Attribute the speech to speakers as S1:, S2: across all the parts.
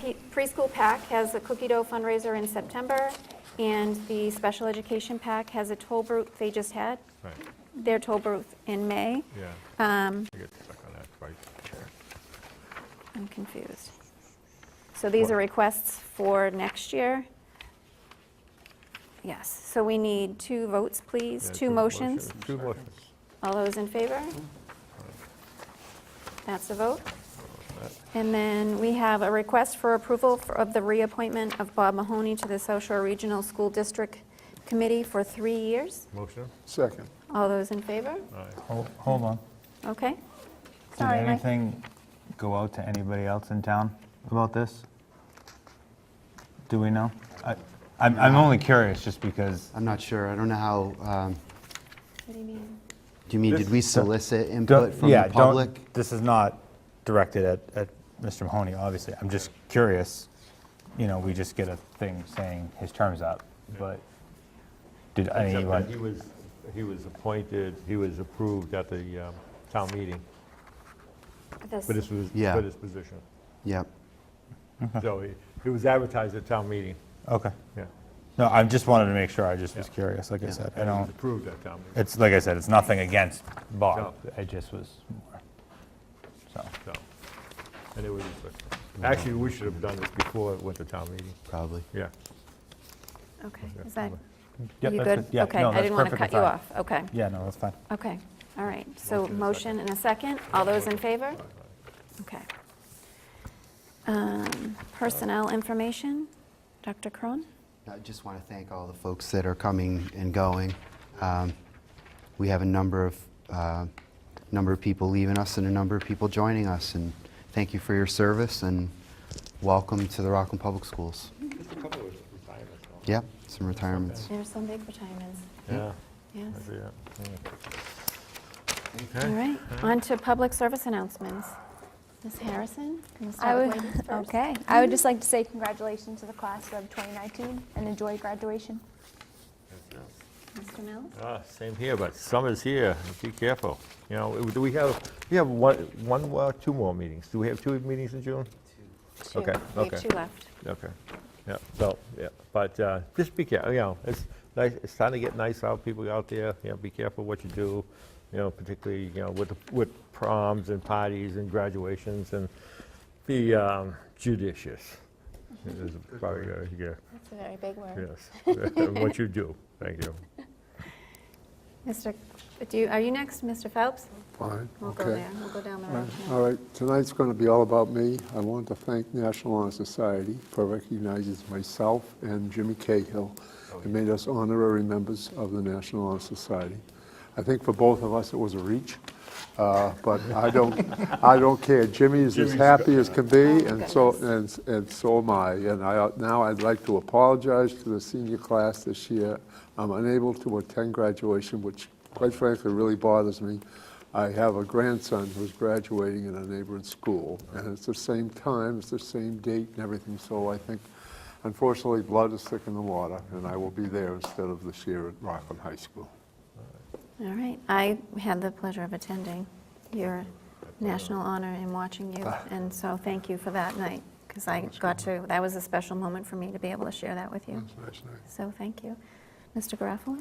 S1: P- preschool pack has a cookie dough fundraiser in September, and the special education pack has a toll booth they just had,
S2: Right,
S1: their toll booth in May.
S2: yeah,
S1: Um,
S2: I get stuck on that twice.
S1: I'm confused. So these are requests for next year? Yes, so we need two votes, please,
S2: Yeah,
S1: two motions.
S2: Two motions.
S1: All those in favor? That's a vote. And then we have a request for approval for- of the reappointment of Bob Mahoney to the South Shore Regional School District Committee for three years.
S2: Motion,
S3: Second.
S1: All those in favor?
S2: aye.
S4: Hold hold on.
S1: Okay.
S4: Did
S1: Sorry, Mike.
S4: anything go out to anybody else in town about this? Do we know? I- I'm I'm only curious, just because,
S5: I'm not sure. I don't know how, um,
S1: What do you mean?
S5: do you mean,
S4: This-
S5: did we solicit input
S4: Don't-
S5: from
S4: yeah,
S5: the
S4: don't,
S5: public?
S4: this is not directed at at Mr. Mahoney, obviously. I'm just curious, you know, we just get a thing saying his term's up, but did
S2: Except that He
S4: anyone,
S2: was, he was appointed, he was approved at the um, town meeting
S1: This-
S2: for this, was-
S5: Yeah.
S2: for this position.
S5: Yep.
S4: Uh-huh.
S2: So it- it was advertised at town meeting,
S4: okay.
S2: yeah.
S4: No, I just wanted to make sure, I just was
S2: Yeah.
S4: curious, like I said. I
S2: And it was
S4: don't,
S2: approved at town meeting,
S4: it's, like I said, it's nothing against Bob.
S2: No.
S4: I just was more, so.
S2: so. And it was, actually, we should have done this before it went to town meeting,
S5: Probably.
S2: yeah.
S1: Okay, is that,
S4: Yeah,
S1: you good?
S4: that's good. Yeah,
S1: Okay,
S4: no,
S1: I
S4: that's
S1: didn't want to
S4: perfectly
S1: cut you
S4: fine.
S1: off. Okay,
S4: Yeah, no, that's fine.
S1: okay, all right. So
S2: Motion and
S1: motion and a second. All those in favor? Okay. Um, Personnel information, Dr. Cron?
S5: I just want to thank all the folks that are coming and going. Um, We have a number of, uh, number of people leaving us and a number of people joining us, and thank you for your service, and welcome to the Rockland Public Schools.
S2: Just a couple of retirements.
S5: Yep, some retirements.
S1: There's some big retirements,
S2: Yeah,
S1: yes.
S2: I see that. yeah.
S1: All right, on to public service announcements. Ms. Harrison? can you
S6: I
S1: start with
S6: would,
S1: ladies first?
S6: okay. I would just like to say congratulations to the class of 2019 and enjoy graduation.
S1: Mr. Mills?
S2: Ah, Same here, but summer's here, be careful. You know, do we have, we have one, one, more- two more meetings? Do we have two meetings in June?
S1: Two.
S2: Okay,
S1: We have
S2: okay.
S1: two left.
S2: Okay, yeah, so, yeah, but uh, just be careful, you know, it's nice, it's starting to get nice out, people out there, you know, be careful what you do, you know, particularly, you know, with, the- with proms and parties and graduations, and be um, judicious. It is probably, uh, yeah,
S1: That's a very big word.
S2: yes, what you do, thank you.
S1: Mr., do you, are you next, Mr. Phelps?
S3: Fine,
S1: We'll go
S3: okay.
S1: there, we'll go down the road.
S3: All right, tonight's going to be all about me. I want to thank National Honor Society for recognizing myself and Jimmy Cahill and made us honorary members of the National Honor Society. I think for both of us, it was a reach, uh, but I don't, I don't care. Jimmy is as happy as can be,
S1: Oh,
S3: and so,
S1: goodness.
S3: and, and so am I. And I, now I'd like to apologize to the senior class this year. I'm unable to attend graduation, which quite frankly really bothers me. I have a grandson who's graduating in a neighboring school, and it's the same time, it's the same date and everything, so I think, unfortunately, blood is thick in the water, and I will be there instead of this year at Rockland High School.
S1: All right, I had the pleasure of attending your national honor and watching you,
S4: Ah.
S1: and so thank you for that night, because I got to, that was a special moment for me to be able to share that with you.
S4: Mm-hmm.
S1: So thank you. Mr. Garofalo?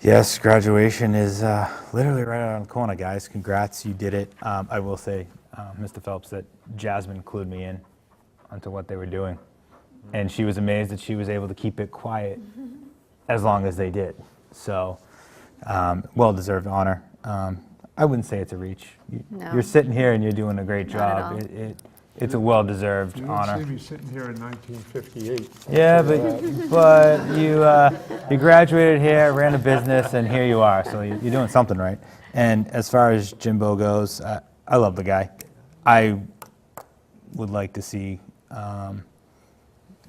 S4: Yes, graduation is uh, literally right around the corner, guys. Congrats, you did it. Um, I will say, um, Mr. Phelps, that Jasmine clued me in onto what they were doing. And she was amazed that she was able to keep it quiet as long as they did. So, um, well deserved honor. Um, I wouldn't say it's a reach. You-
S1: No.
S4: You're sitting here and you're doing a great
S1: Not at all.
S4: job. It, it, it's a well deserved honor.
S3: me sitting here in 1958.
S4: Yeah, but, but you, uh, you graduated here, ran a business, and here you are. So you- you're doing something right. And as far as Jimbo goes, uh, I love the guy. I would like to see um,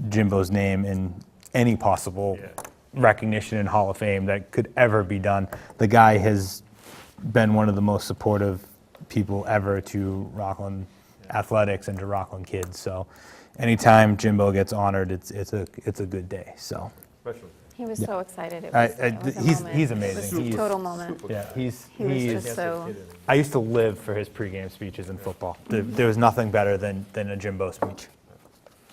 S4: Jimbo's name in any possible recognition in Hall of Fame that could ever be done. The guy has been one of the most supportive people ever to Rockland athletics and to Rockland kids. So anytime Jimbo gets honored, it's, it's, a, it's a good day. So
S2: Special.
S1: He was
S4: Yeah.
S1: so excited. It
S4: I-
S1: was,
S4: I-
S1: it was a
S4: he's-
S1: moment.
S4: he's
S1: It
S4: amazing.
S1: was a
S4: He's-
S1: total moment.
S4: yeah, he's,
S1: He was
S4: he's-
S1: just so,
S4: I used to live for his pregame speeches in football. There, there was nothing better than, than a Jimbo speech.